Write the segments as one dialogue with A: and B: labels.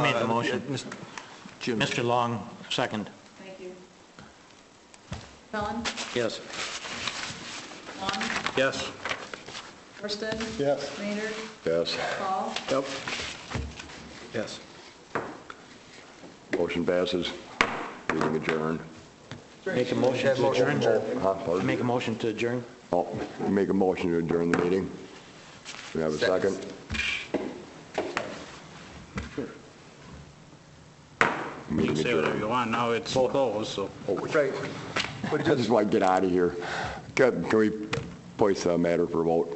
A: made the
B: uh,
A: motion.
B: yeah, Mis- Jim,
A: Mr. Long, second.
C: Thank you. Felon,
A: Yes.
C: Long,
A: Yes.
C: Worsted.
D: Yes.
C: Maynard,
D: Yes.
C: Paul,
D: Yep.
B: yes.
D: Motion passes. Meeting adjourned.
A: Make a motion to adjourn.
D: Huh? Pardon?
A: Make a motion to adjourn.
D: Oh, Make a motion to adjourn the meeting. We have a second?
E: You can say whatever you want, now it's closed, so.
B: Right. But
D: I
B: just,
D: just want to get out of here. Can can we place the matter for vote?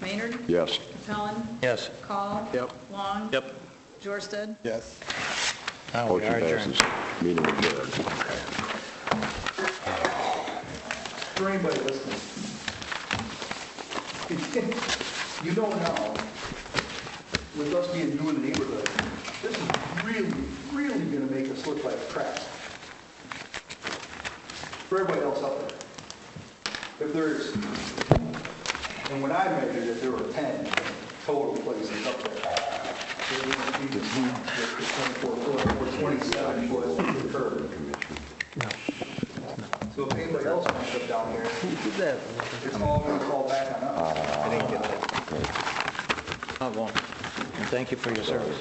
C: Maynard,
D: Yes.
C: Felon,
A: Yes.
C: Call.
B: Yep.
C: Long.
E: Yep.
C: Jorsted.
B: yes.
A: Uh, we
D: Motion
A: are adjourned.
D: passes. Meeting adjourned.
B: For anybody listening, you know now, with us being new in the neighborhood, this is really, really gonna make us look like crap. For everybody else out there. If there's, and when I measured it, there were 10 total places up there. There was even with the 24 foot or 27 foot curb. So if anybody else wants to come down here, it's all gonna fall back on us.
A: Not one. And thank you for your service.